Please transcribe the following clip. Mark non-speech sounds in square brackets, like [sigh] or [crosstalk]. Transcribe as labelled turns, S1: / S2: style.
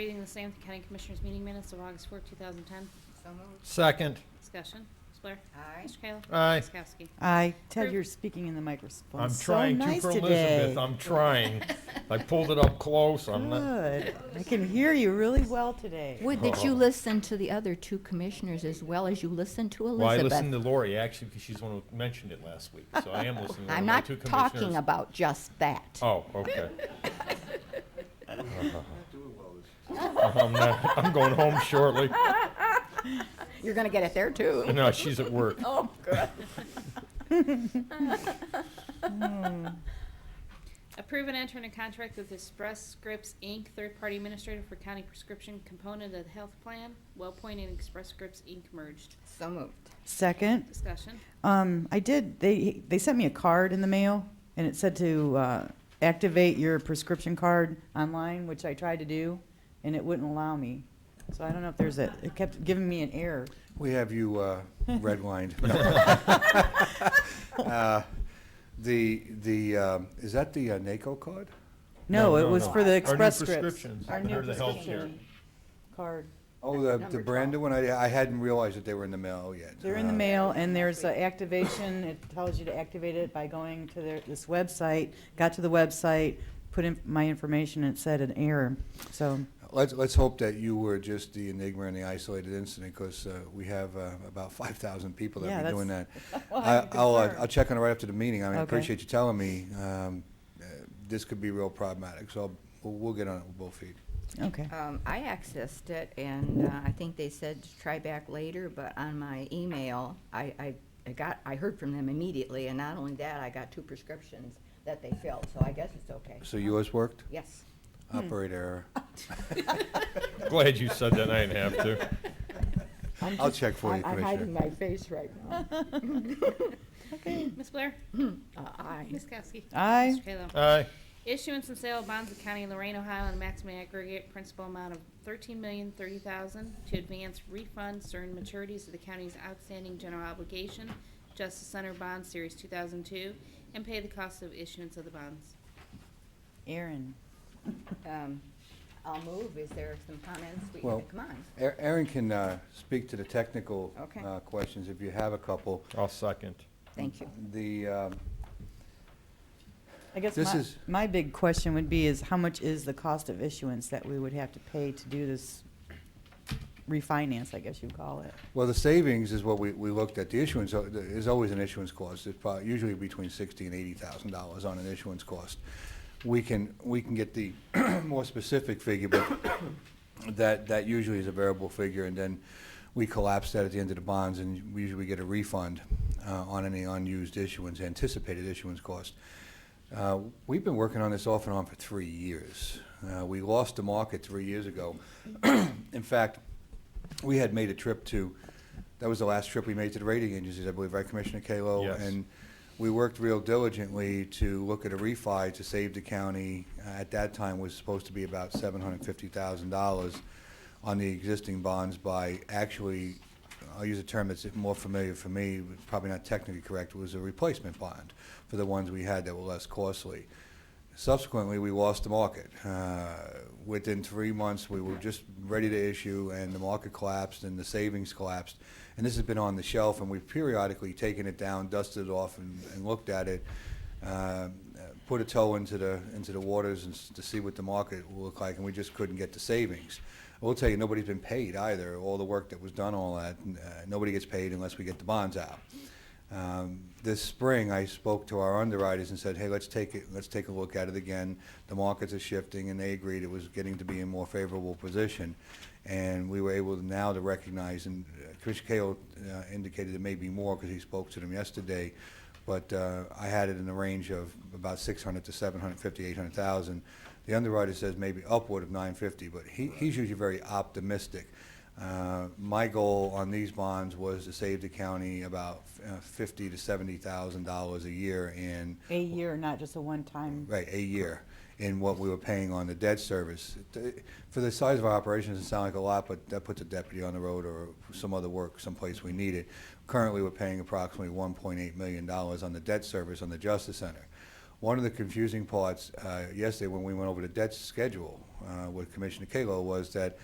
S1: Reading the same from County Commissioners meeting minutes of August 4, 2010.
S2: So moved.
S3: Second.
S1: Discussion. Ms. Blair?
S2: Aye.
S1: Mr. Kayla?
S3: Aye.
S1: Ms. Kowski?
S4: I Ted,
S1: Prove-
S4: you're speaking in the microphone.
S3: I'm
S4: So
S3: trying to
S4: nice
S3: for
S4: today.
S3: Elizabeth. I'm trying. I pulled it up close. I'm not.
S4: Good. I can hear you really well today.
S5: Would that
S3: Oh.
S5: you listen to the other two commissioners as well as you listen to
S3: Well, I listened
S5: Elizabeth?
S3: to Lori actually because she's the one who mentioned it last week. So I am listening to
S5: I'm
S3: my
S5: not
S3: two
S5: talking
S3: commissioners.
S5: about just that.
S3: Oh, okay.
S4: [laughs]
S3: oh, I'm, not, I'm going home
S2: [laughs]
S3: shortly.
S5: You're gonna get it there too.
S3: No, she's at work.
S5: Oh, good.
S1: Approve and enter in a contract with Express Scripts, Inc., third-party administrator for county prescription component of the health plan. WellPoint and Express Scripts, Inc. merged.
S2: [laughs] So moved.
S4: Second,
S1: Discussion.
S4: um, I did. They they sent me a card in the mail, and it said to uh, activate your prescription card online, which I tried to do, and it wouldn't allow me. So I don't know if there's a. It kept giving me an error.
S6: We have you uh, redlined. No. Uh, The, the, um, is that the uh, NACO card?
S4: No,
S3: No,
S4: it
S3: no,
S4: was
S3: no.
S4: for
S3: Our
S4: the
S3: new
S4: express scripts.
S3: prescriptions.
S4: Our
S3: They're
S4: new
S3: the health care.
S4: prescription card.
S6: Oh, the,
S5: Number
S6: the
S5: 12.
S6: brand new one, I, I hadn't realized that they were in the mail yet.
S4: They're in the
S6: Uh,
S4: mail, and there's an activation, it tells you to activate it by going to their, this website, got to the website, put in my information, and it said an error, so,
S6: Let's, let's hope that you were just the enigma and the isolated incident, because we have uh, about 5,000 people
S4: Yeah,
S6: that be doing that.
S4: [laughs] that's- Well,
S6: I-
S4: I'm
S6: I'll, uh,
S4: concerned.
S6: I'll check on it right after the meeting. I mean, I
S4: Okay.
S6: appreciate you telling me. um, uh, This could be real problematic, so we'll we'll get on it with both feet.
S4: okay.
S2: Um, I accessed it and uh, I think they said to try back later, but on my email, I, I, I got, I heard from them immediately and not only that, I got two prescriptions that they filled, so I guess it's okay.
S6: So
S4: Uh-huh.
S6: yours worked?
S2: Yes.
S4: Hmm.
S6: Operator
S4: [laughs]
S6: error.
S3: Glad you said that. I didn't have to.
S2: I'm
S6: I'll
S2: just-
S6: check for you,
S2: I'm- I'm hiding my
S6: Commissioner.
S2: face right now.
S1: Ms. Blair?
S2: Uh, Aye.
S1: Ms. Kowski?
S4: Aye.
S1: Mr. Kayla?
S3: Aye.
S1: Issuance and sale of bonds of county of Lorraine, Ohio, and maximum aggregate principal amount of thirteen million thirty thousand to advance refund certain maturities of the county's outstanding general obligation, Justice Center Bond Series two thousand two, and pay the cost of issuance of the bonds.
S4: Aaron,
S2: Um, I'll move. Is there some comments? We,
S6: Well-
S2: come on.
S6: A- Aaron can uh, speak to the technical
S2: Okay.
S6: uh, questions if you have a couple.
S3: I'll second.
S2: Thank you.
S6: The, um,
S4: I guess
S6: This
S4: my,
S6: is-
S4: my big question would be is how much is the cost of issuance that we would have to pay to do this refinance, I guess you'd call it?
S6: well, the savings is what we we looked at. The issuance uh, th- is always an issuance cost. It's probably usually between sixty and $80,000 on an issuance cost. We can, we can get the [clears throat] more specific figure, but [coughs] that, that usually is a variable figure, and then we collapse that at the end of the bonds, and we usually get a refund uh, on any unused issuance, anticipated issuance cost. Uh, We've been working on this off and on for three years. Uh, We lost the market three years ago. [clears throat] In fact, we had made a trip to, that was the last trip we made to the rating agencies, I believe, right, Commissioner Kalo?
S3: Yes.
S6: And we worked real diligently to look at a refi to save the county. Uh, At that time, was supposed to be about $750,000 on the existing bonds by actually, I'll use a term that's more familiar for me, but probably not technically correct, was a replacement bond for the ones we had that were less costly. Subsequently, we lost the market. Uh, Within three months, we were just ready to issue, and the market collapsed, and the savings collapsed. And this has been on the shelf, and we've periodically taken it down, dusted it off, and and looked at it, uh, put a toe into the, into the waters and s- to see what the market will look like, and we just couldn't get the savings. I will tell you, nobody's been paid either. All the work that was done, all that, uh, nobody gets paid unless we get the bonds out. Um, This spring, I spoke to our underwriters and said, hey, let's take it, let's take a look at it again. The markets are shifting, and they agreed it was getting to be in a more favorable position. And we were able now to recognize, and uh, Commissioner Cahill uh, indicated it may be more because he spoke to them yesterday, but uh, I had it in the range of about 600 to 750, 800,000. The underwriter says maybe upward of 950, but he, he's usually very optimistic. Uh, My goal on these bonds was to save the county about uh, 50 to 70,000 dollars a year in
S4: A year, not just a one-time,
S6: Right, a year in what we were paying on the debt service. It- For the size of our operations, it sounds like a lot, but that puts a deputy on the road or some other work someplace we need it. Currently, we're paying approximately $1.8 million on the debt service on the Justice Center. One of the confusing parts, uh, yesterday when we went over the debt schedule, uh, with Commissioner Kalo was that